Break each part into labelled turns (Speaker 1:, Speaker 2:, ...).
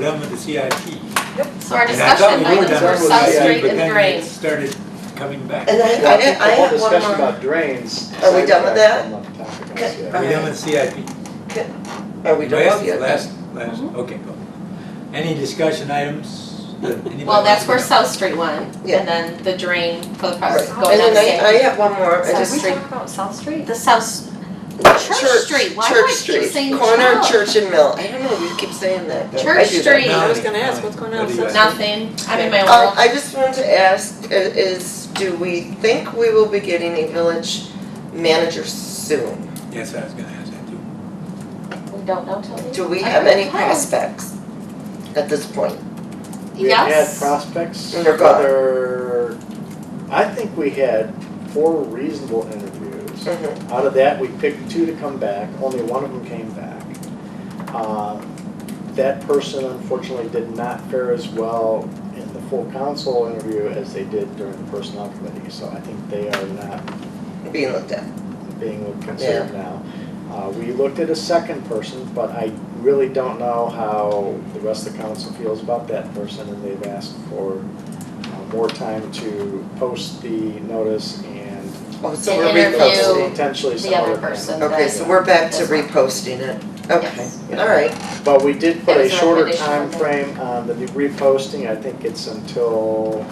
Speaker 1: done with the CIP.
Speaker 2: So our
Speaker 1: And I thought
Speaker 2: discussion
Speaker 1: we were
Speaker 2: items
Speaker 1: done
Speaker 2: were
Speaker 1: with the CIP,
Speaker 2: substrate
Speaker 1: but
Speaker 2: and
Speaker 1: then it
Speaker 2: drain.
Speaker 1: started coming back.
Speaker 3: And
Speaker 1: We
Speaker 3: I,
Speaker 4: Well,
Speaker 3: I,
Speaker 4: I think the
Speaker 3: I
Speaker 4: whole
Speaker 3: have one
Speaker 4: discussion
Speaker 3: more.
Speaker 4: about drains.
Speaker 3: Are we done with that?
Speaker 4: that?
Speaker 3: Okay.
Speaker 1: done with CIP.
Speaker 3: Are we done
Speaker 1: Last-
Speaker 3: with it?
Speaker 1: Last, last,
Speaker 3: Mm-hmm.
Speaker 1: okay, go. Any discussion items that anybody?
Speaker 2: Well, that's where
Speaker 1: wants to
Speaker 2: South Street went, and
Speaker 3: Yeah.
Speaker 2: then the drain for the
Speaker 3: Right.
Speaker 2: park
Speaker 3: And
Speaker 2: going down
Speaker 3: then
Speaker 2: the
Speaker 3: I, I
Speaker 2: same.
Speaker 3: have one more, I
Speaker 2: Sorry.
Speaker 3: just,
Speaker 5: Did
Speaker 2: South
Speaker 5: we
Speaker 2: Street.
Speaker 5: talk about South Street?
Speaker 2: The South, Church Street, why do I
Speaker 3: Church
Speaker 2: keep
Speaker 3: Street,
Speaker 2: saying
Speaker 3: corner of
Speaker 2: Church?
Speaker 3: Church and Mill, I don't know, we keep saying that.
Speaker 1: Church
Speaker 3: I do that.
Speaker 2: Street.
Speaker 5: I was gonna ask, what's going
Speaker 1: Nine,
Speaker 5: on with
Speaker 1: nine,
Speaker 5: South
Speaker 1: thirty-one.
Speaker 2: nothing, I'm in my
Speaker 3: Um,
Speaker 2: world.
Speaker 3: I just wanted to ask, i- is, do we think we will be getting a village manager soon?
Speaker 1: Yes, I was gonna ask that too.
Speaker 2: We don't know till we.
Speaker 3: Do we
Speaker 2: I
Speaker 3: have
Speaker 2: don't
Speaker 3: any
Speaker 2: know.
Speaker 3: prospects at this point?
Speaker 4: We have had
Speaker 2: Yes.
Speaker 4: prospects,
Speaker 3: And Mm, they're gone.
Speaker 4: whether, I think we had four reasonable interviews.
Speaker 2: Mm-hmm.
Speaker 3: Mhm.
Speaker 4: Out of that, we picked two to come back, only one of them came back. Um, That person unfortunately did not fare as well in the full council interview as they did during the personnel committee, so I think they are not
Speaker 3: Mm-hmm. Being looked at,
Speaker 4: being considered now. Uh, we looked at a second person, but I really don't know how the rest of the council feels about that person, and they've asked for uh, more time to post the notice and
Speaker 3: oh, so
Speaker 2: To
Speaker 3: we're
Speaker 2: interview
Speaker 3: reposting,
Speaker 4: potentially
Speaker 2: the
Speaker 4: some
Speaker 2: other
Speaker 4: other candidate.
Speaker 2: person.
Speaker 3: okay, so we're back to
Speaker 2: That's fine.
Speaker 3: reposting it, okay,
Speaker 2: Yes.
Speaker 3: all right,
Speaker 4: But we did put
Speaker 2: That
Speaker 4: a
Speaker 2: was a
Speaker 4: shorter time
Speaker 2: recommendation,
Speaker 4: frame on the new reposting, I think it's until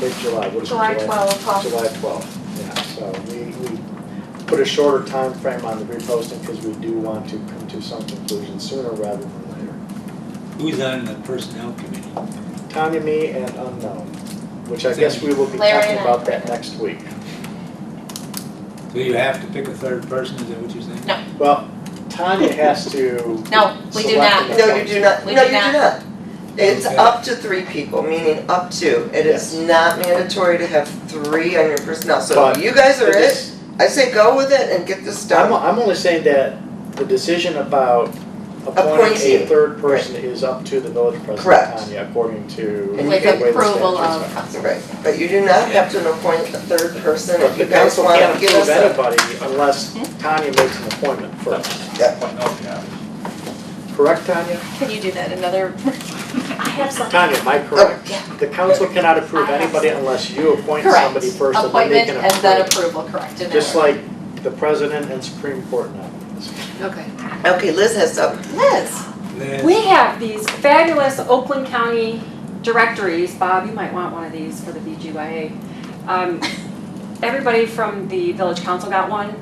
Speaker 4: mid-July, what is it,
Speaker 5: July 12th, huh?
Speaker 4: July twelfth, yeah, so we, we put a shorter time frame on the reposting because we do want to come to some conclusion sooner rather than later.
Speaker 1: Who's on the personnel committee?
Speaker 4: Tanya, me, and unknown, which I guess we will be
Speaker 2: Larry
Speaker 4: talking
Speaker 2: and I.
Speaker 4: about that next week.
Speaker 1: So you have to pick a third person, is that what you're saying?
Speaker 4: Well, Tanya has to.
Speaker 2: No, we do
Speaker 4: Select
Speaker 2: not.
Speaker 4: it.
Speaker 3: no, you do not, no,
Speaker 2: We
Speaker 3: you
Speaker 2: do
Speaker 3: do not.
Speaker 2: not.
Speaker 3: It's
Speaker 1: Okay.
Speaker 3: up to three people, meaning up to, it is not mandatory to have three on your personnel, so if
Speaker 4: But
Speaker 3: you guys are
Speaker 4: It
Speaker 3: it,
Speaker 4: is-
Speaker 3: I say go with it and get this
Speaker 4: I'm,
Speaker 3: done.
Speaker 4: I'm only saying that the decision about appointing a
Speaker 3: Appointing,
Speaker 4: third person is up to the village president,
Speaker 3: Correct.
Speaker 4: Tanya, according to the
Speaker 3: And
Speaker 4: way
Speaker 2: With
Speaker 4: the statutes
Speaker 2: approval of
Speaker 4: are.
Speaker 2: council.
Speaker 3: Right, but you do not have to appoint a third person
Speaker 4: But
Speaker 3: if
Speaker 4: the
Speaker 3: you guys
Speaker 4: council
Speaker 3: wanna
Speaker 4: can't
Speaker 3: give
Speaker 4: approve
Speaker 3: us a.
Speaker 4: anybody unless
Speaker 2: Hmm?
Speaker 4: Tanya makes an appointment first. Correct, Tanya?
Speaker 2: Can you do that another?
Speaker 5: I have something.
Speaker 4: Tanya, am I
Speaker 3: Oh,
Speaker 4: correct? The council cannot approve
Speaker 5: I have-
Speaker 4: anybody unless you appoint somebody
Speaker 2: Correct,
Speaker 4: first and then they
Speaker 2: appointment
Speaker 4: can approve.
Speaker 2: and then approval, correct, in that
Speaker 4: Just
Speaker 2: order.
Speaker 4: like the president and Supreme Court nominees.
Speaker 5: Okay.
Speaker 3: Okay, Liz has something.
Speaker 2: Liz,
Speaker 1: Liz?
Speaker 5: We have these fabulous Oakland County directories. Bob, you might want one of these for the BGYA. Um, everybody from the village council got one.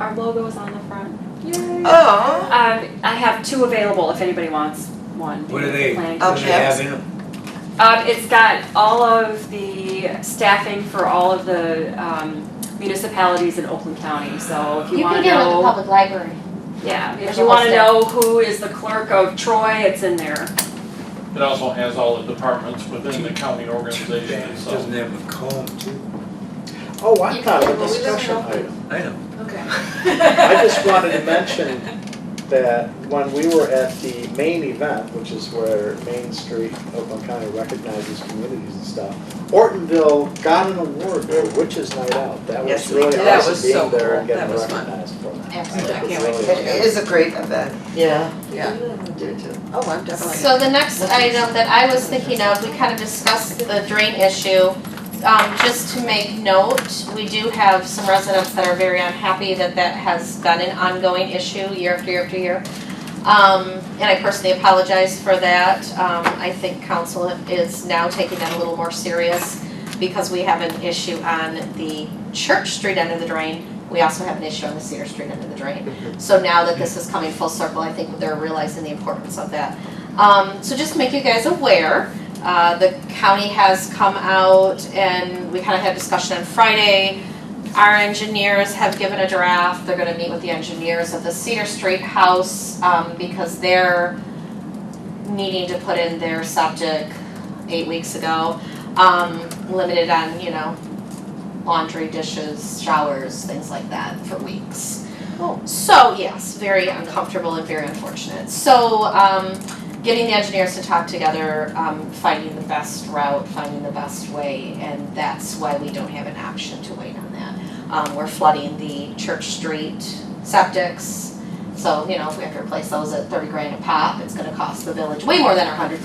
Speaker 5: Our logo is on the front. Yay. Um,
Speaker 3: Oh,
Speaker 5: I have two available if anybody wants one.
Speaker 1: What are they,
Speaker 5: Planning
Speaker 1: what do
Speaker 3: Okay.
Speaker 1: they have in them?
Speaker 5: Um, it's got all of the staffing for all of the um, municipalities in Oakland County, so if you
Speaker 2: you can
Speaker 5: wanna
Speaker 2: get it with the
Speaker 5: know.
Speaker 2: public library.
Speaker 5: Yeah,
Speaker 2: There's
Speaker 5: if
Speaker 2: a
Speaker 5: you
Speaker 2: whole
Speaker 5: wanna
Speaker 2: stack.
Speaker 5: know who is the clerk of Troy, it's in there.
Speaker 6: It also has all the departments within the county organization
Speaker 1: It
Speaker 6: itself.
Speaker 1: Doesn't have a comb too?
Speaker 4: Oh, I
Speaker 2: You
Speaker 4: thought
Speaker 2: can-
Speaker 4: of
Speaker 2: well, we live
Speaker 4: a
Speaker 2: in
Speaker 4: discussion
Speaker 2: Oakland.
Speaker 4: item.
Speaker 1: I know.
Speaker 4: I just wanted to mention that when we were at the main event, which is where Main Street, Oakland County recognizes communities and stuff, Ortonville got an award for Witches Night Out. That was
Speaker 3: Yes, we
Speaker 4: really
Speaker 3: did. That
Speaker 4: awesome
Speaker 7: was so
Speaker 4: being there and
Speaker 7: cool.
Speaker 4: getting
Speaker 7: That was fun.
Speaker 4: recognized for that.
Speaker 2: Absolutely.
Speaker 4: That
Speaker 7: I
Speaker 4: was
Speaker 7: can't wait to
Speaker 4: really
Speaker 3: it
Speaker 4: cool.
Speaker 3: is a great event, yeah.
Speaker 7: Yeah. Oh, I'm definitely.
Speaker 2: So the next item that I was thinking of, we kind of discussed the drain issue. Um, just to make note, we do have some residents that are very unhappy that that has been an ongoing issue year after year after year. Um, and I personally apologize for that. Um, I think council is now taking that a little more serious because we have an issue on the Church Street end of the drain. We also have an issue on the Cedar Street end of the drain. So now that this is coming full circle, I think they're realizing the importance of that. Um, so just to make you guys aware, uh, the county has come out and we kind of had a discussion on Friday. Our engineers have given a draft, they're gonna meet with the engineers of the Cedar Street House, um, because they're needing to put in their septic eight weeks ago. Um, limited on, you know, laundry, dishes, showers, things like that for weeks.
Speaker 7: Oh.
Speaker 2: So, yes, very uncomfortable and very unfortunate. So, um, getting the engineers to talk together, um, finding the best route, finding the best way, and that's why we don't have an option to wait on that. Um, we're flooding the Church Street septics, so, you know, if we have to replace those at thirty grand a pop, it's gonna cost the village way more than a hundred